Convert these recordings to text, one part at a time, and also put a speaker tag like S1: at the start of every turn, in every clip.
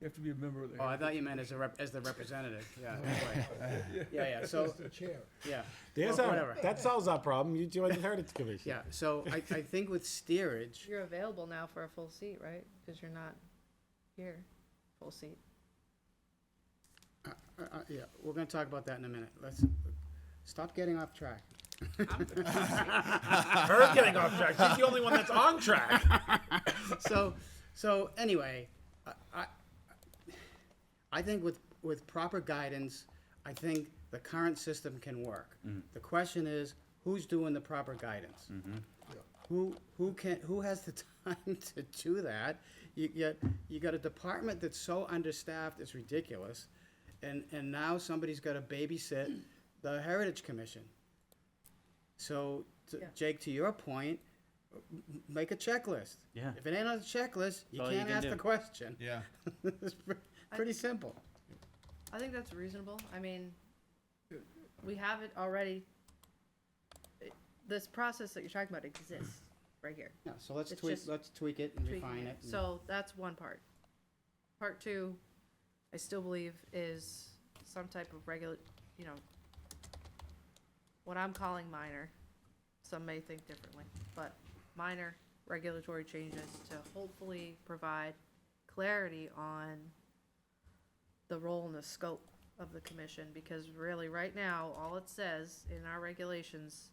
S1: You have to be a member of the.
S2: Oh, I thought you meant as a rep, as the representative, yeah, that's right. Yeah, yeah, so,
S3: The chair.
S2: yeah.
S4: There's
S2: Or
S4: our,
S2: whatever.
S4: that solves our problem. You join the Heritage Commission.
S2: Yeah, so I, I think with steerage,
S5: You're available now for a full seat, right? Because you're not here, full seat.
S2: uh, uh, yeah, we're gonna talk about that in a minute. Let's, stop getting off track.
S4: Her getting off track. She's the only one that's on track.
S2: So, so anyway, I, I, I think with, with proper guidance, I think the current system can work. The question is, who's doing the proper guidance? Who, who can, who has the time to do that? You get, you got a department that's so understaffed, it's ridiculous. And, and now somebody's gotta babysit the Heritage Commission. So, to-
S5: Yeah.
S2: Jake, to your point, m- m- make a checklist.
S6: Yeah.
S2: If it ain't on the checklist, you
S6: all you
S2: can't
S6: can
S2: ask the
S6: do.
S2: question.
S7: Yeah.
S2: It's pre- Pretty simple.
S5: I think that's reasonable. I mean, we have it already. It- This process that you're talking about exists right here.
S2: Yeah, so let's
S5: It's
S2: tweak,
S5: just
S2: let's tweak it and
S5: tweaking
S2: refine it. and-
S5: So that's one part. Part two, I still believe is some type of regular, you know, what I'm calling minor, some may think differently, but minor regulatory changes to hopefully provide clarity on the role and the scope of the commission, because really, right now, all it says in our regulations,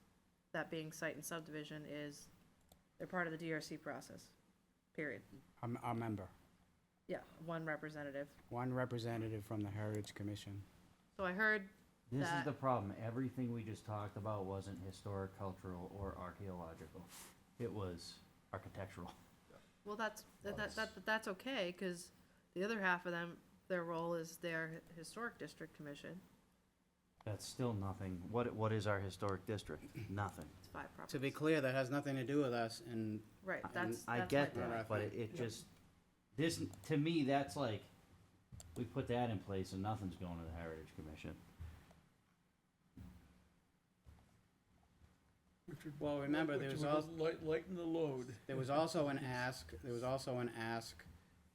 S5: that being site and subdivision, is they're part of the DRC process, period.
S2: A m- A member,
S5: Yeah, one representative.
S2: one representative from the Heritage Commission.
S5: So I heard
S6: This is
S5: that-
S6: the problem. Everything we just talked about wasn't historic, cultural, or archaeological. It was architectural.
S5: Well, that's, that, that, that, but that's okay, cause the other half of them, their role is their historic district commission.
S6: That's still nothing. What, what is our historic district? Nothing.
S5: It's five properties.
S2: To be clear, that has nothing to do with us and
S5: Right,
S6: I-
S5: that's, that's.
S6: I
S5: my
S6: get
S5: point.
S6: that, but it, it just, this, to me, that's like, we put that in place and nothing's going to the Heritage Commission.
S1: Which would-
S2: Well, remember,
S1: which
S2: there was
S1: would
S2: al-
S1: light- Lighten the load.
S2: There was also an ask, there was also an ask,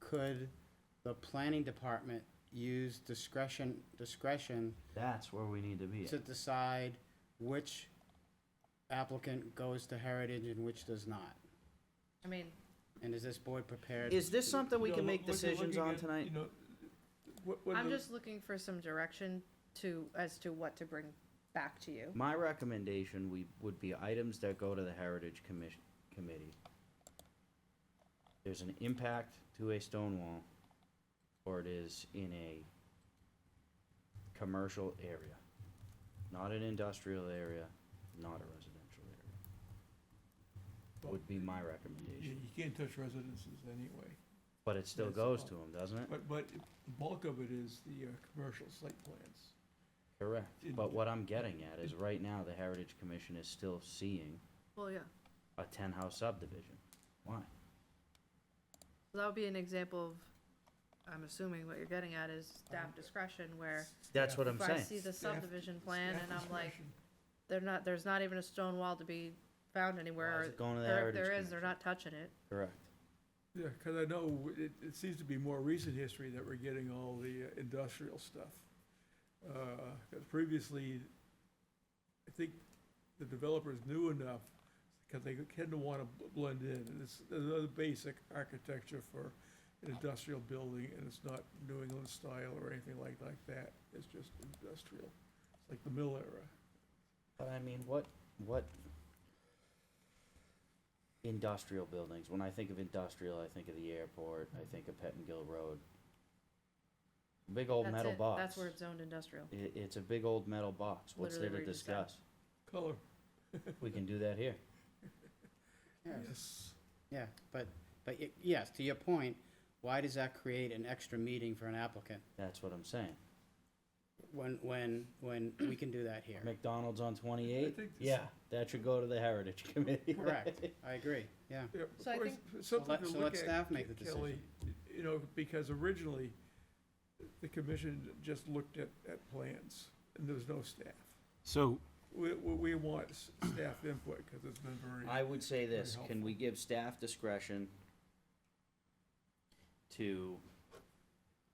S2: could the planning department use discretion, discretion
S6: That's where we need to be.
S2: to decide which applicant goes to Heritage and which does not?
S5: I mean,
S2: And is this board prepared?
S6: Is this something we
S1: You know,
S6: can make
S1: look- looking-
S6: decisions
S1: looking
S6: on
S1: at,
S6: tonight?
S1: You know, what, what
S5: I'm
S1: the-
S5: just looking for some direction to, as to what to bring back to you.
S6: My recommendation we, would be items that go to the Heritage Commission, Committee. There's an impact to a stone wall, or it is in a commercial area, not an industrial area, not a residential area. Would be my
S1: you,
S6: recommendation,
S1: you can't touch residences anyway,
S6: but it still
S1: Yes,
S6: goes
S1: oh.
S6: to them, doesn't it?
S1: but, but the bulk of it is the, uh, commercial site plans.
S6: Correct,
S1: It-
S6: but what I'm getting at is right now, the Heritage Commission is still seeing
S5: Well, yeah,
S6: a ten-house subdivision. Why?
S5: So that would be an example of, I'm assuming what you're getting at is staff discretion where
S6: Uh-huh. That's what I'm
S5: if
S6: saying.
S5: I see the
S1: Staff-
S5: subdivision plan
S1: staff
S5: and I'm like,
S1: discretion.
S5: they're not, there's not even a stone wall to be found
S6: Why
S5: anywhere.
S6: is it going to the
S5: There-
S6: Heritage
S5: There is, they're
S6: Commission?
S5: not touching it.
S6: Correct.
S1: Yeah, because I know it, it seems to be more recent history that we're getting all the uh, industrial stuff. Because previously, I think the developers knew enough, because they tend to want to blend in. And it's another basic architecture for an industrial building, and it's not New England style or anything like, like that. It's just industrial. It's like the mill era.
S6: But I mean, what, what industrial buildings, when I think of industrial, I think of the airport, I think of Pettingill Road. Big old
S5: That's
S6: metal
S5: it.
S6: box.
S5: That's where it's zoned industrial.
S6: I- it's a big old metal box. What's there
S5: Literally
S6: to
S5: where you just sat.
S6: discuss?
S1: Color,
S6: We can do that here.
S2: Yeah.
S1: yes.
S2: Yeah, but, but y- yes, to your point, why does that create an extra meeting for an applicant
S6: That's what I'm saying.
S2: when, when, when we can do that here?
S6: McDonald's on twenty-eight?
S1: think this-
S6: Yeah, that should go to the Heritage Committee.
S2: Correct, I agree, yeah.
S1: Yeah,
S5: So I
S1: or
S5: think-
S1: s- Something
S2: let-
S1: to
S2: so
S1: look
S2: let
S1: at,
S2: staff make the
S1: Kelly, you know, because originally, the commission just looked at, at plans, and there was no staff.
S4: So
S1: We, we we want s- staff input, because it's been very,
S6: I would say this,
S1: Very
S6: can we give staff discretion to